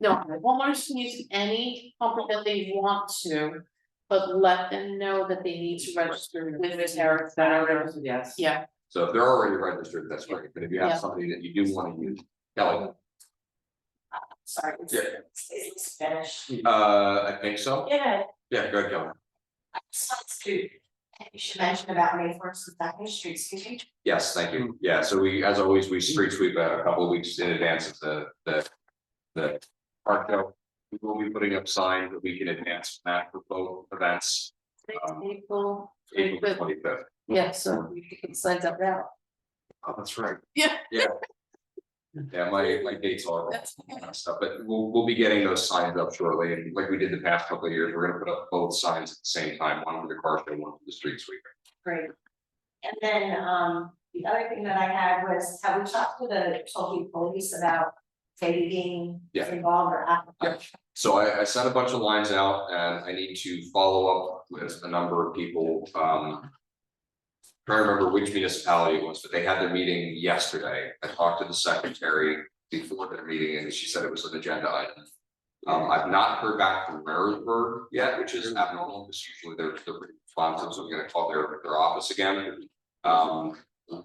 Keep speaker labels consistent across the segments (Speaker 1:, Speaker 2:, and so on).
Speaker 1: No, homeowners can use any pumper that they want to, but let them know that they need to register with the tariff center.
Speaker 2: yes.
Speaker 1: Yeah,
Speaker 3: So if they're already registered, that's great, but if you
Speaker 1: Yeah.
Speaker 3: have somebody that you do wanna use, Kelly,
Speaker 2: Sorry. it's-
Speaker 3: Yeah.
Speaker 2: it's- It's Spanish.
Speaker 3: uh, I think so,
Speaker 2: Yeah,
Speaker 3: yeah, go ahead, Kelly,
Speaker 2: I just wanted to, you should mention about May first and second streets, could you?
Speaker 3: yes, thank you, yeah, so we, as always, we street sweep uh, a couple of weeks in advance of the, the. The park though, we will be putting up signs that we can advance that for both events, Um,
Speaker 1: April,
Speaker 3: April
Speaker 1: Good.
Speaker 3: twenty fifth.
Speaker 1: yeah, so we can sign up now.
Speaker 3: Oh, that's right.
Speaker 1: Yeah.
Speaker 3: Yeah. Yeah, my, my dates are wrong
Speaker 1: That's
Speaker 3: and that stuff, but we'll, we'll be getting those signs up shortly, and like we did the past couple of years, we're gonna put up both signs at the same time, one for the car show, one for the street sweeper.
Speaker 2: Great. And then, um, the other thing that I had was, have we talked to the Tulkey police about maybe being
Speaker 3: Yeah.
Speaker 2: involved or at?
Speaker 3: Yeah. So I, I sent a bunch of lines out and I need to follow up with a number of people, um. Trying to remember which municipality it was, but they had their meeting yesterday. I talked to the secretary before their meeting and she said it was an agenda item. Um, I've not heard back from Marisburg yet, which is abnormal, because usually they're, they're pretty responsive, so I'm gonna call their, their office again. Um,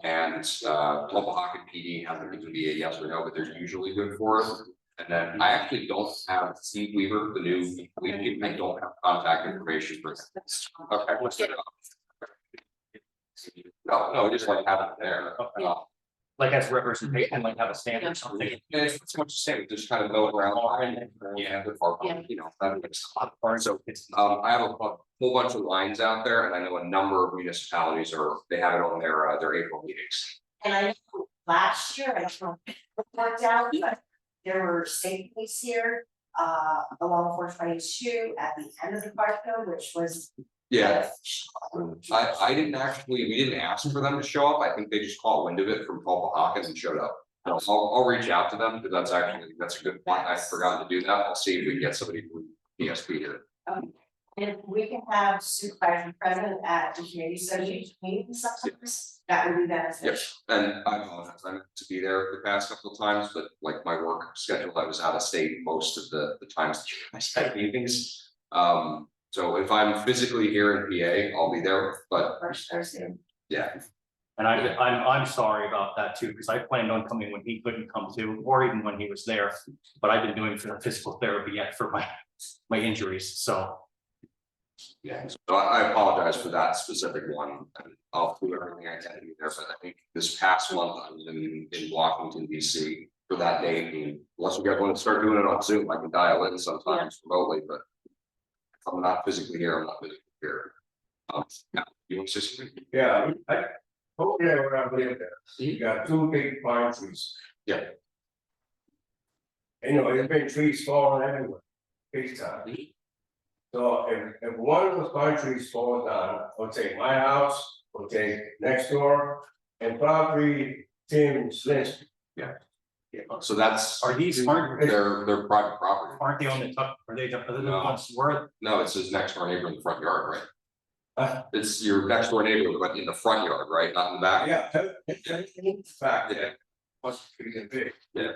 Speaker 3: and, uh, Pocahontas PD hasn't given me a yes or no, but they're usually good for us. And then I actually don't have Steve Weaver, the new, we, I don't have contact information for him. Okay, what's that? No, no, we just like have it there. Uh,
Speaker 4: like as representation, like have a stand or something.
Speaker 3: And it's it's much the same, just kind of go around. Yeah, the far,
Speaker 1: Yeah.
Speaker 3: you know, that makes a lot of
Speaker 4: Or
Speaker 3: So,
Speaker 4: so it's,
Speaker 3: um, I have a bu- whole bunch of lines out there and I know a number of municipalities are, they have it on their, uh, their April meetings.
Speaker 2: And I know last year, I don't know, if it worked out, but there were state police here, uh, along four twenty-two at the end of the park though, which was.
Speaker 3: Yeah, I, I didn't actually, we didn't ask for them to show up. I think they just caught wind of it from Paul Hawkins and showed up. I'll, I'll reach out to them because that's actually, that's a good point. I forgot to do that. I'll see if we can get somebody from PSP here.
Speaker 2: If we can have supervisor present at the community association meetings sometimes, that would be beneficial.
Speaker 3: Yes, and I apologize, I meant to be there the past couple of times, but like my work schedule, I was out of state most of the the times that I spent meetings. Um, so if I'm physically here in PA, I'll be there, but
Speaker 2: First Thursday.
Speaker 3: yeah,
Speaker 4: and I, I'm, I'm sorry about that too, because I planned on coming when he couldn't come to, or even when he was there. But I've been doing physical therapy yet for my, my injuries, so.
Speaker 3: yeah, so I I apologize for that specific one. and I'll do everything I can to be there, but I think this past month I was in in Washington DC for that day, and unless we guys want to start doing it on Zoom, I can dial in sometimes remotely, but. If I'm not physically here, I'm not physically here. Um, yeah, you want to say something?
Speaker 5: Yeah, I, hopefully I went up there, you got two big pine trees.
Speaker 3: Yeah.
Speaker 5: You know, there's been trees falling everywhere, big time. So if, if one of those pine trees falls down, or take my house, or take next door, and probably Tim Slips.
Speaker 3: So that's,
Speaker 4: Are these, aren't,
Speaker 3: they're, they're private property.
Speaker 4: aren't they on the top, are they, are they the
Speaker 3: No.
Speaker 4: ones where,
Speaker 3: No, it's his next door neighbor in the front yard, right?
Speaker 5: Uh.
Speaker 3: It's your next door neighbor, but in the front yard, right? Not in the back?
Speaker 5: Yeah. Fact, yeah, must be a big.
Speaker 3: Yeah.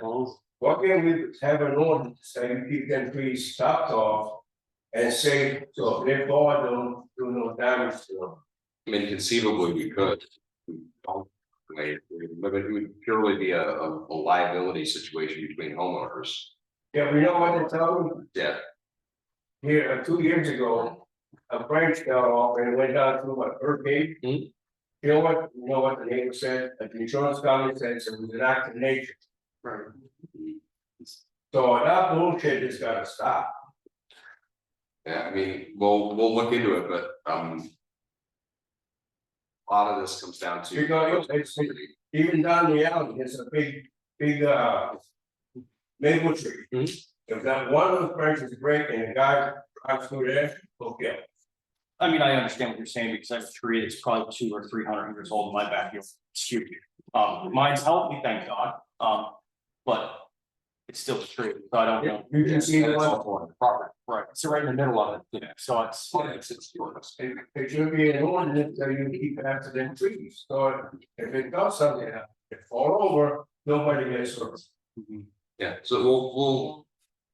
Speaker 5: Why can't we have an ordinance that you keep them trees chopped off? And say, so if they fall, don't do no damage to them.
Speaker 3: I mean, conceivably, we could. We don't, like, but it would purely be a, a a liability situation between homeowners.
Speaker 5: Yeah, we know what they tell me,
Speaker 3: Yeah,
Speaker 5: here, uh, two years ago, a branch fell off and it went down through my hurricane.
Speaker 3: Mhm.
Speaker 5: You know what, you know what the neighbor said, That the insurance company said, so it was an act of nature.
Speaker 3: Right.
Speaker 5: So that bullshit has gotta stop,
Speaker 3: yeah, I mean, we'll, we'll look into it, but, um. A lot of this comes down to.
Speaker 5: Because it's- even down the alley, there's a big, big, uh. Maple tree. If that one of those branches break and the guy drives through there, okay,
Speaker 4: I mean, I understand what you're saying, because I have a tree that's probably two or three hundred years old in my backyard, it's huge. Um, mine's healthy, thank God, um, but it's still a tree, so I don't know,
Speaker 5: you can see the one,
Speaker 3: Property.
Speaker 4: right, so right in the middle of it, you know, so it's.
Speaker 3: It's, it's yours.
Speaker 5: it, it should be an ordinance that you keep after them trees, so if it does something, if it fall over, nobody gets hurt.
Speaker 3: Yeah, so we'll, we'll